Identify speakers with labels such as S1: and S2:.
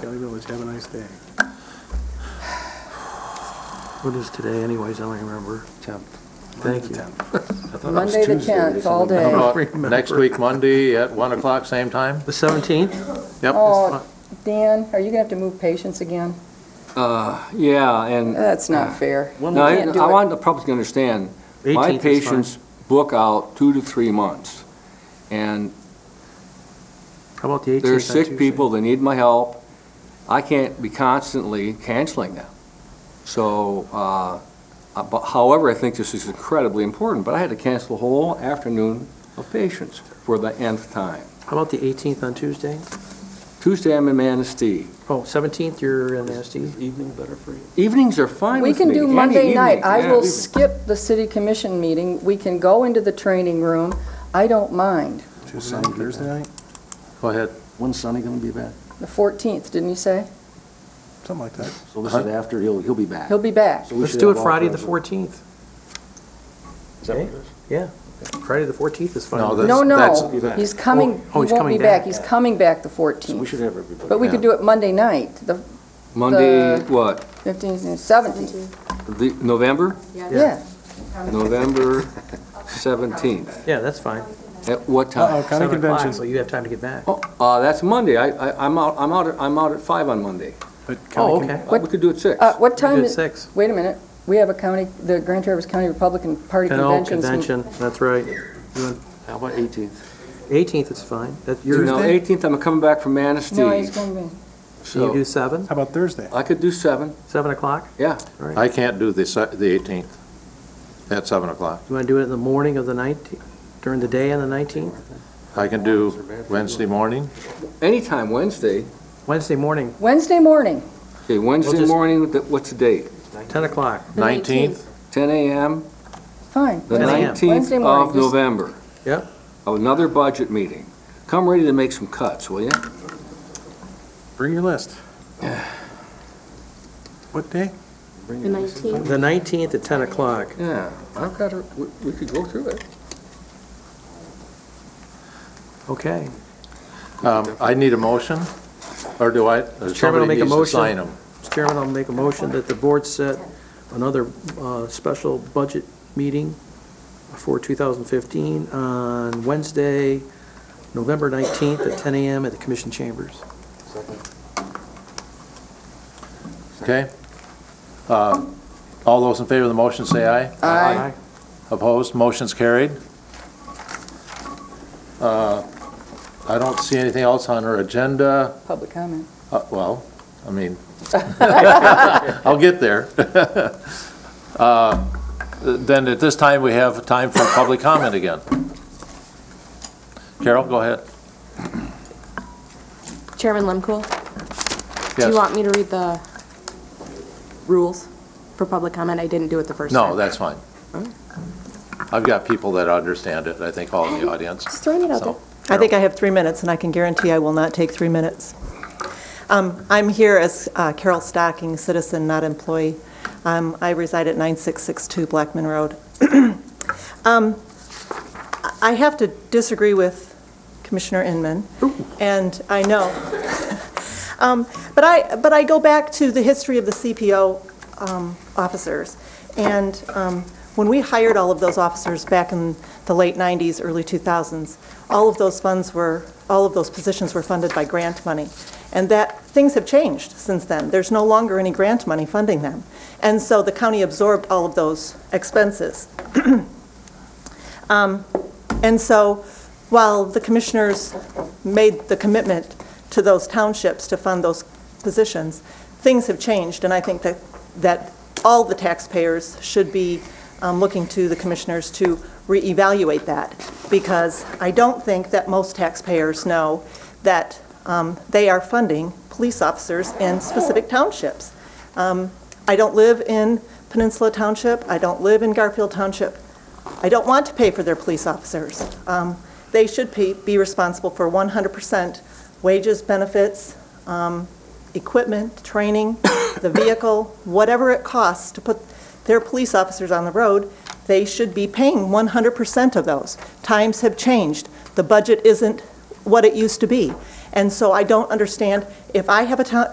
S1: Valley Village. Have a nice day. What is today anyways? I don't remember.
S2: Tenth.
S1: Thank you.
S2: I thought it was
S3: Monday the
S2: Tuesday or
S3: 10th, all
S2: something.
S3: day.
S4: Uh, Next week, Monday, at 1 o'clock, same time?
S1: The 17th?
S4: Yep.
S3: Oh, Dan, are you gonna have to move patients again?
S5: Uh, yeah, and,
S3: That's not fair. You
S5: no, I
S3: can't do
S5: I
S3: it.
S5: want the public to understand,
S1: 18th
S5: my
S1: is fine.
S5: patients book out two to three months. And
S1: How about the 18th?
S5: they're
S1: on
S5: sick
S1: Tuesday?
S5: people, they need my help. I can't be constantly canceling them. So, uh, uh, but however, I think this is incredibly important, but I had to cancel a whole afternoon of patients for the nth time.
S1: How about the 18th on Tuesday?
S5: Tuesday, I'm in Manistee.
S1: Oh, 17th, you're in SD?
S2: Evening better for you?
S5: Evenings are fine
S3: We
S5: with
S3: can
S5: me,
S3: do
S5: any
S3: Monday night.
S5: evening.
S3: I
S5: Yeah,
S3: will
S5: evening.
S3: skip the city commission meeting. We can go into the training room. I don't mind.
S2: Tuesday night, Thursday night?
S4: Go ahead.
S2: When's Sonny gonna be back?
S3: The 14th, didn't you say?
S1: Something like that.
S2: So this is after, he'll, he'll be back.
S3: He'll be back.
S2: So we
S1: Let's
S2: should
S1: do
S2: have
S1: it
S2: all
S1: Friday the
S2: kinds of-
S1: 14th.
S2: Is that what it is?
S1: Yeah. Friday the 14th is fine.
S4: No,
S1: with me.
S4: that's-
S3: No, no,
S4: that's-
S3: he's coming, he
S1: Oh, he's
S3: won't
S1: coming
S3: be back.
S1: back.
S3: He's coming back the
S2: So we
S3: 14th.
S2: should have everybody.
S3: But we could do it Monday night, the
S5: Monday,
S3: the-
S5: what,
S3: 15th and 17th.
S5: the, November?
S3: Yeah,
S5: November 17th.
S1: Yeah, that's fine.
S5: At what time?
S1: Oh, County convention. So you have time to get back.
S5: Oh, uh, that's Monday. I, I, I'm out, I'm out, at- I'm out at five on Monday.
S1: Oh, okay.
S5: Uh, We could do it six.
S3: Uh, what
S1: You
S3: time
S1: did
S3: is,
S1: six.
S3: wait a minute, we have a county, the Grand Traverse County Republican Party
S1: Oh,
S3: convention's.
S1: convention, that's right.
S2: How about eighteenth?
S1: 18th is fine. That, you're,
S5: You know,
S1: you
S5: eighteenth, I'm coming back from
S3: No, he's
S5: Manistee,
S3: going to be,
S1: do
S5: so
S1: 7,
S6: How about Thursday?
S5: I could do seven,
S1: 7 o'clock?
S5: yeah.
S1: All right.
S4: I can't do the se- the 18th at 7 o'clock.
S1: You want to do it in the morning of the 19th, during the day on the 19th?
S4: I can do Wednesday morning.
S5: Anytime Wednesday.
S1: Wednesday morning,
S3: Wednesday morning,
S5: Okay, Wednesday
S1: just-
S5: morning, th- what's the date?
S1: 10 o'clock.
S4: 19th,
S5: Ten AM,
S3: fine.
S5: the
S1: 10 a.m.
S5: nineteenth
S3: Wednesday morning,
S5: of
S3: just-
S5: November.
S1: Yep.
S5: Another budget meeting. Come ready to make some cuts, will you?
S6: Bring your list. What day?
S7: The 19th.
S1: The 19th at 10 o'clock.
S5: Yeah, I've got, a- we, we could go through it.
S1: Okay.
S4: Um, I need a motion, or do I, or
S1: Chairman will
S4: somebody
S1: make a
S4: needs to
S1: motion.
S4: sign them?
S1: Mr. Chairman, I'll make a motion that the board set another uh, special budget meeting for 2015 on Wednesday, November 19th at 10 a.m. at the commission chambers.
S4: Okay? Uh, All those in favor of the motion, say aye.
S3: Aye.
S4: Opposed, motion's carried. Uh, I don't see anything else on our agenda.
S3: Public comment.
S4: Uh, Well, I mean, I'll get there. Uh, Then at this time, we have time for public comment again. Carol, go ahead.
S7: Chairman Lemkool, do you
S4: Yes.
S7: want me to read the rules for public comment? I didn't do it the first time.
S4: No, that's fine. I've got people that understand it, I think, all in the audience.
S7: Just throwing it out
S4: So,
S8: I think I have three minutes, and I can guarantee I will not take three minutes. Um, I'm here as uh, Carol Stocking, citizen, not employee. Um, I reside at 9662 Blackman Road. Um, I I have to disagree with Commissioner Inman, and I know. Um, But I, but I go back to the history of the CPO um, officers, and um, when we hired all of those officers back in the late 90s, early 2000s, all of those funds were, all of those positions were funded by grant money. And that, things have changed since then. There's no longer any grant money funding them. And so the county absorbed all of those expenses. Um, And so while the commissioners made the commitment to those townships to fund those positions, things have changed, and I think that, that all the taxpayers should be um, looking to the commissioners to reevaluate that, because I don't think that most taxpayers know that um, they are funding police officers in specific townships. Um, I don't live in Peninsula Township, I don't live in Garfield Township, I don't want to pay for their police officers. Um, They should be be responsible for 100% wages, benefits, um, equipment, training, the vehicle, whatever it costs to put their police officers on the road, they should be paying 100% of those. Times have changed. The budget isn't what it used to be. And so I don't understand, if I have a town,